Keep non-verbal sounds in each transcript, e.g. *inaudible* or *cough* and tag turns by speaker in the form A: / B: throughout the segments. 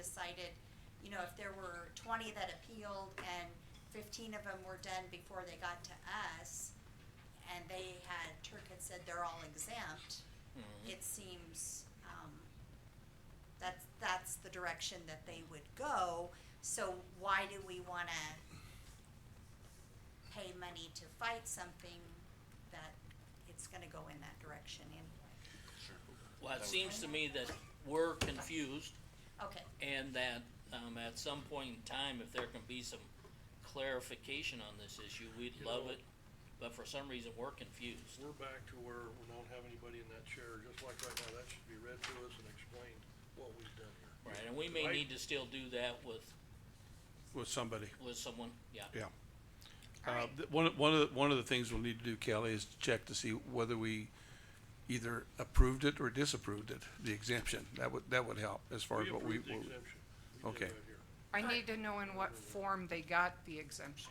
A: decided, you know, if there were twenty that appealed and fifteen of them were done before they got to us, and they had, Turk had said they're all exempt, it seems, um, that's, that's the direction that they would go, so why do we wanna pay money to fight something that it's gonna go in that direction anyway?
B: Well, it seems to me that we're confused
A: Okay,
B: and that, um, at some point in time, if there can be some clarification on this issue, we'd
C: You
B: love
C: know-
B: it. But for some reason, we're confused.
C: We're back to where we don't have anybody in that chair, just like right now, that should be read to us and explained what we've done here.
B: Right, and we may
C: Right.
B: need to still do that with,
D: with somebody,
B: with someone, yeah.
D: yeah. Uh,
A: alright,
D: th- one, of- one of, the- one of the things we'll need to do, Kelly, is to check to see whether we either approved it or disapproved it, the exemption. That would, that would help as far as what we,
C: approved the
D: what we-
C: exemption. We did
D: okay.
C: right here.
E: I need to know in what form they got the exemption,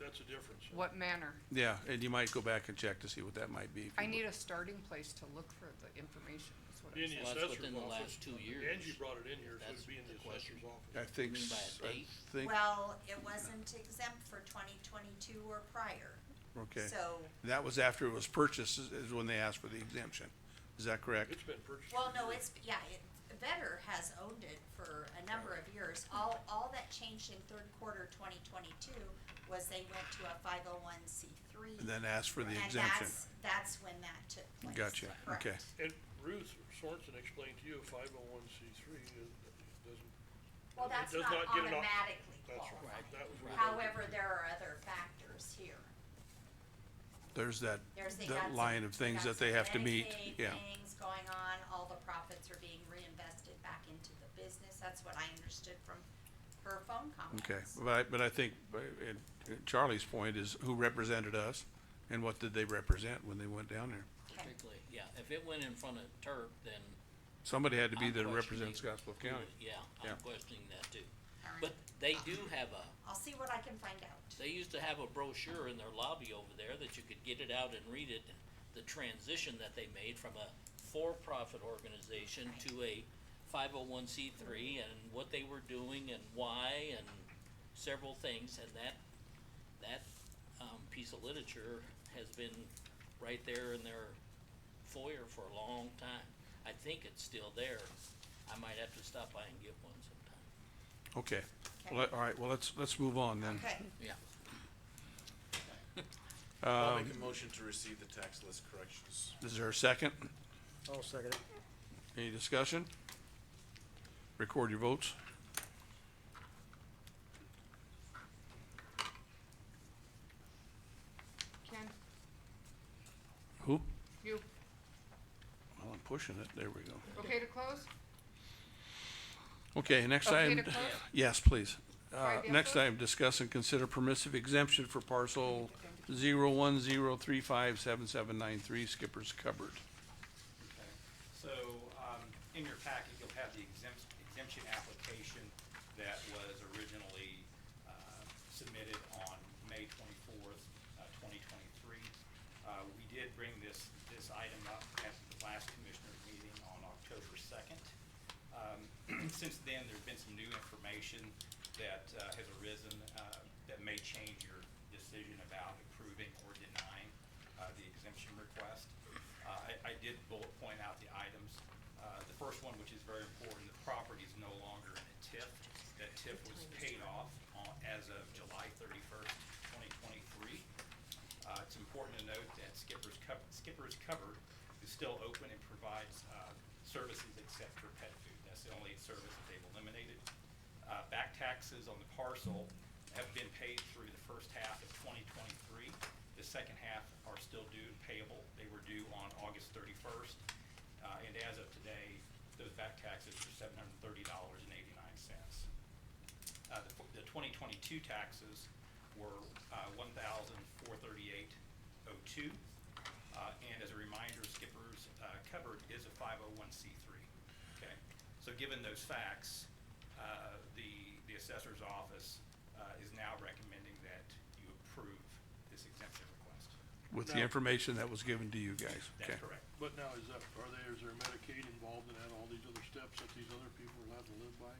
C: That's a difference.
E: what manner.
D: yeah, and you might go back and check to see what that might be. if
E: I
D: you-
E: need a starting place to look for the information, is what I'm
C: In the
E: saying.
B: Well, that's
C: assessor's
B: within the
C: office.
B: last two years.
C: Angie brought it in here, so
B: That's
C: it'd be in the
B: the question.
C: assessor's office.
D: I think,
B: You mean by a
D: s- I
B: date?
D: think,
A: well, it wasn't exempt for twenty twenty-two or prior,
D: okay.
A: so,
D: That was after it was purchased is, is when they asked for the exemption. Is that correct?
C: It's been purchased.
A: well,
C: for
A: no,
C: years.
A: it's, yeah, it, Vetter has owned it for a number of years. All, all that changed in third quarter twenty twenty-two was they went to a five oh one C three.
D: And then asked for the
A: And
D: exemption.
A: that's, that's when that took place.
D: Gotcha,
A: Correct.
D: okay.
C: And Ruth Sorensen explained to you, five oh one C three doesn't.
A: Well,
C: it
A: that's
C: does
A: not
C: get an op-
A: automatically
C: That's right.
A: qualified.
C: That was where that-
A: However, there are other factors here.
D: There's that,
A: There's the.
D: that
A: that's-
D: line of things that
A: that's
D: they have to meet,
A: Medicaid
D: yeah.
A: Things going on, all the profits are being reinvested back into the business, that's what I understood from her phone comments.
D: Okay, but I, but I think, uh, and and Charlie's point is who represented us and what did they represent when they went down there?
A: Okay.
B: Particularly, yeah, if it went in front of Turk, then.
D: Somebody had to be
B: I'm
D: there to
B: questioning
D: represent Scottsbluff
B: who
D: County.
B: was- Yeah,
D: Yeah.
B: I'm questioning that too.
A: All right.
B: But they do have a,
A: I'll see what I can find out.
B: They used to have a brochure in their lobby over there that you could get it out and read it, the transition that they made from a for-profit organization to a five oh one C three and what they were doing and why and several things and that, that, um, piece of literature has been right there in their foyer for a long time. I think it's still there. I might have to stop by and get one sometime.
D: Okay, well, all right, well, let's, let's move on then.
A: Okay,
B: Yeah.
F: I'll
D: Um,
F: make a motion to receive the tax list corrections.
D: is there a second?
G: I'll second it.
D: Any discussion? Record your votes.
E: Ken,
D: Who?
E: you,
D: Well, I'm pushing it, there we go.
E: okay to close?
D: Okay, next
E: Okay
D: item.
E: to close?
D: Yes, please. Uh,
E: Five yes
D: next
E: votes?
D: item, discuss and consider permissive exemption for parcel zero one zero three five seven seven nine three Skipper's Cupboard.
H: Okay. So, um, in your packet, you'll have the exempt, exemption application that was originally, uh, submitted on May twenty-fourth, uh, twenty twenty-three. Uh, we did bring this, this item up at the last commissioner's meeting on October second. Um, *clears throat* since then, there's been some new information that, uh, has arisen, uh, that may change your decision about approving or denying, uh, the exemption request. Uh, I, I did bullet point out the items. Uh, the first one, which is very important, the property is no longer in a TIF. That TIF was paid off on, as of July thirty-first, twenty twenty-three. Uh, it's important to note that Skipper's Cup, Skipper's Cupboard is still open and provides, uh, services except for pet food. That's the only service that they've eliminated. Uh, back taxes on the parcel have been paid through the first half of twenty twenty-three. The second half are still due and payable. They were due on August thirty-first. Uh, and as of today, those back taxes are seven hundred and thirty dollars and eighty-nine cents. Uh, the, f- the twenty twenty-two taxes were, uh, one thousand four thirty-eight oh two. Uh, and as a reminder, Skipper's, uh, cupboard is a five oh one C three, okay? So given those facts, uh, the, the assessor's office, uh, is now recommending that you approve this exemption request.
D: With the
C: No.
D: information that was given to you guys, okay?
H: That's correct.
C: But now, is that, are there, is there Medicaid involved in that, all these other steps that these other people are allowed to live by?